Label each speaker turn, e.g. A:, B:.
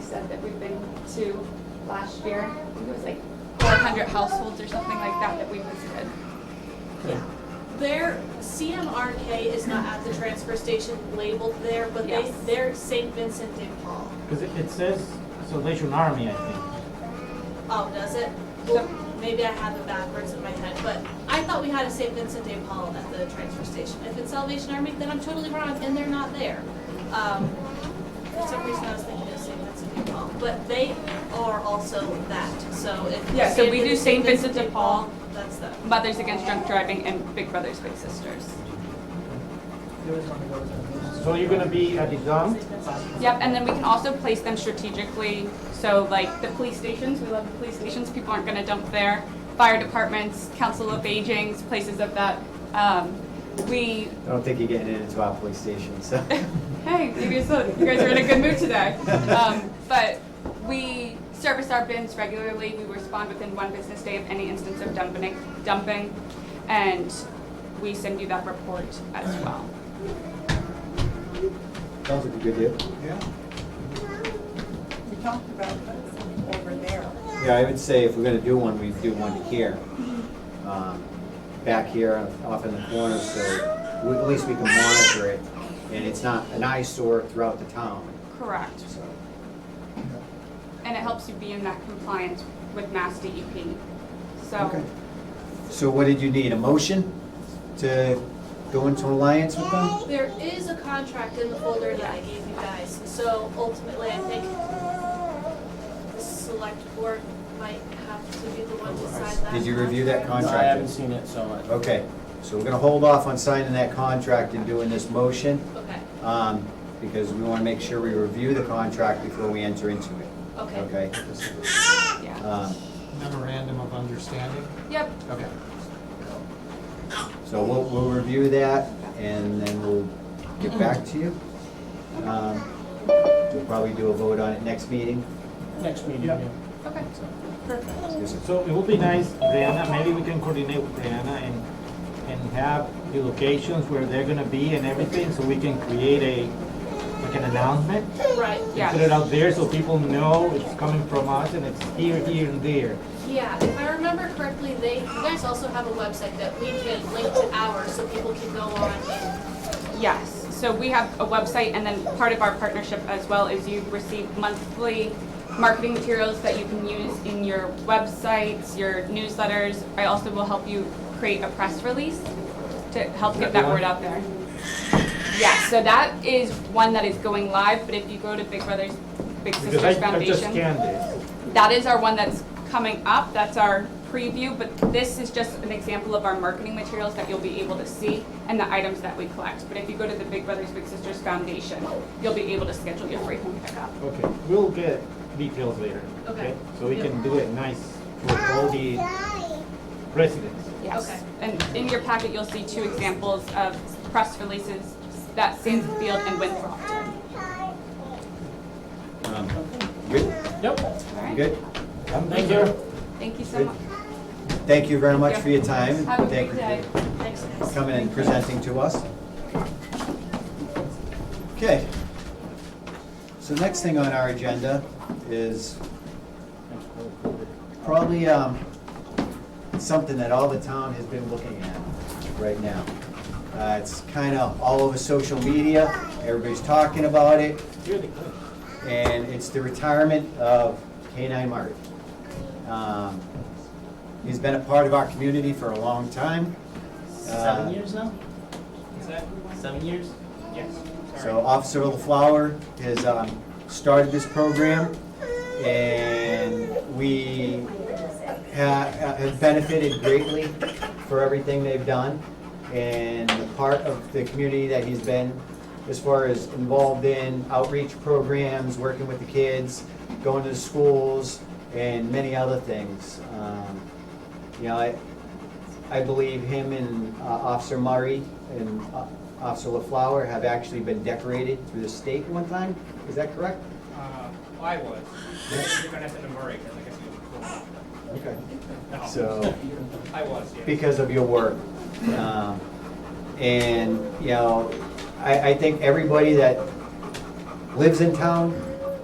A: said that we've been to last year. I think it was like 400 households or something like that that we visited.
B: Their CMRK is not at the transfer station labeled there, but they,
A: Yes.
B: they're St. Vincent de Paul.
C: Because it, it says Salvation Army, I think.
B: Oh, does it? Well, maybe I have it backwards in my head, but I thought we had a St. Vincent de Paul at the transfer station. If it's Salvation Army, then I'm totally wrong, and they're not there. Um, for some reason, I was thinking of St. Vincent de Paul, but they are also that, so if.
A: Yeah, so we do St. Vincent de Paul.
B: That's them.
A: Mothers Against Drunk Driving and Big Brothers Big Sisters.
C: So you're gonna be at the dump?
A: Yep, and then we can also place them strategically. So like the police stations, we love the police stations, people aren't gonna dump there. Fire departments, council of agings, places of that. Um, we,
D: I don't think you're getting it into our police station, so.
A: hey, you guys, look, you guys are in a good mood today. Um, but we service our bins regularly. We respond within one business day of any instance of dumping, dumping. And we send you that report as well.
D: Sounds like a good deal.
E: We talked about putting some over there.
D: Yeah, I would say if we're gonna do one, we do one here. Um, Back here, off in the corner, so we- at least we can monitor it. And it's not an eyesore throughout the town,
A: Correct.
D: so.
A: And it helps you be in that compliance with Mass DEP. So,
D: Okay. So what did you need, a motion to go into alliance with them?
B: There is a contract in the folder that I gave you guys, so ultimately, I think the select board might have to be the one to sign that.
D: Did you review that
C: No,
D: contract?
C: I haven't seen it, so uh, I.
D: Okay, so we're gonna hold off on signing that contract and doing this motion,
B: Okay,
D: um, because we wanna make sure we review the contract before we enter into it,
B: okay.
D: okay?
A: yeah.
D: Um,
F: Memorandum of understanding?
A: Yep,
F: Okay.
D: So we'll, we'll review that and then we'll get back to you. Um, We'll probably do a vote on it next meeting.
C: Next meeting,
F: Yeah.
C: yeah.
A: okay.
D: Yes, sir.
C: So it would be nice, Brianna, maybe we can coordinate with Brianna and, and have the locations where they're gonna be and everything, so we can create a, like an announcement.
B: Right,
C: and
A: Yeah.
C: Put it out there so people know it's coming from us and it's here, here, and there.
B: yeah, if I remember correctly, they, you guys also have a website that we can link to ours, so people can go on and,
A: Yes, so we have a website and then part of our partnership as well is you receive monthly marketing materials that you can use in your websites, your newsletters. I also will help you create a press release to help get that word out there. Yeah, so that is one that is going live, but if you go to Big Brothers Big
C: Because
A: Sisters
C: I, I just
A: Foundation.
C: scanned this.
A: That is our one that's coming up, that's our preview, but this is just an example of our marketing materials that you'll be able to see and the items that we collect. But if you go to the Big Brothers Big Sisters Foundation, you'll be able to schedule your free home pickup.
C: Okay, we'll get details later.
B: Okay.
C: So we can do it nice for all the residents.
A: Yes.
B: Okay.
A: And in your packet, you'll see two examples of press releases that Sandsfield and Winthrop did.
D: Um, Good,
C: Yep.
A: All right?
D: good.
C: Thank you.
A: Thank you so
D: Good.
A: much.
D: Thank you very much for your time. and
A: Have a
D: Thank
A: good
D: you
A: day.
D: for
B: thanks guys.
D: Coming and presenting to us. Okay. So next thing on our agenda is probably um, something that all the town has been looking at right now. Uh, It's kind of all over social media, everybody's talking about it,
C: You're the clerk.
D: and it's the retirement of K-9 Marty. Um, He's been a part of our community for a long time. Uh,
G: Seven years now? Is that seven years? Yes.
D: So Officer LaFleur has um, started this program, and we ha- have benefited greatly for everything they've done, and the part of the community that he's been, as far as involved in outreach programs, working with the kids, going to the schools, and many other things. Um, You know, I, I believe him and uh, Officer Murray and uh, Officer LaFleur have actually been decorated through the state one time, is that correct?
G: Uh, I was. You're gonna have to number it, 'cause I guess you
D: Okay.
G: No.
D: So,
G: I was, yeah.
D: because of your work. Um, And, you know, I, I think everybody that lives in town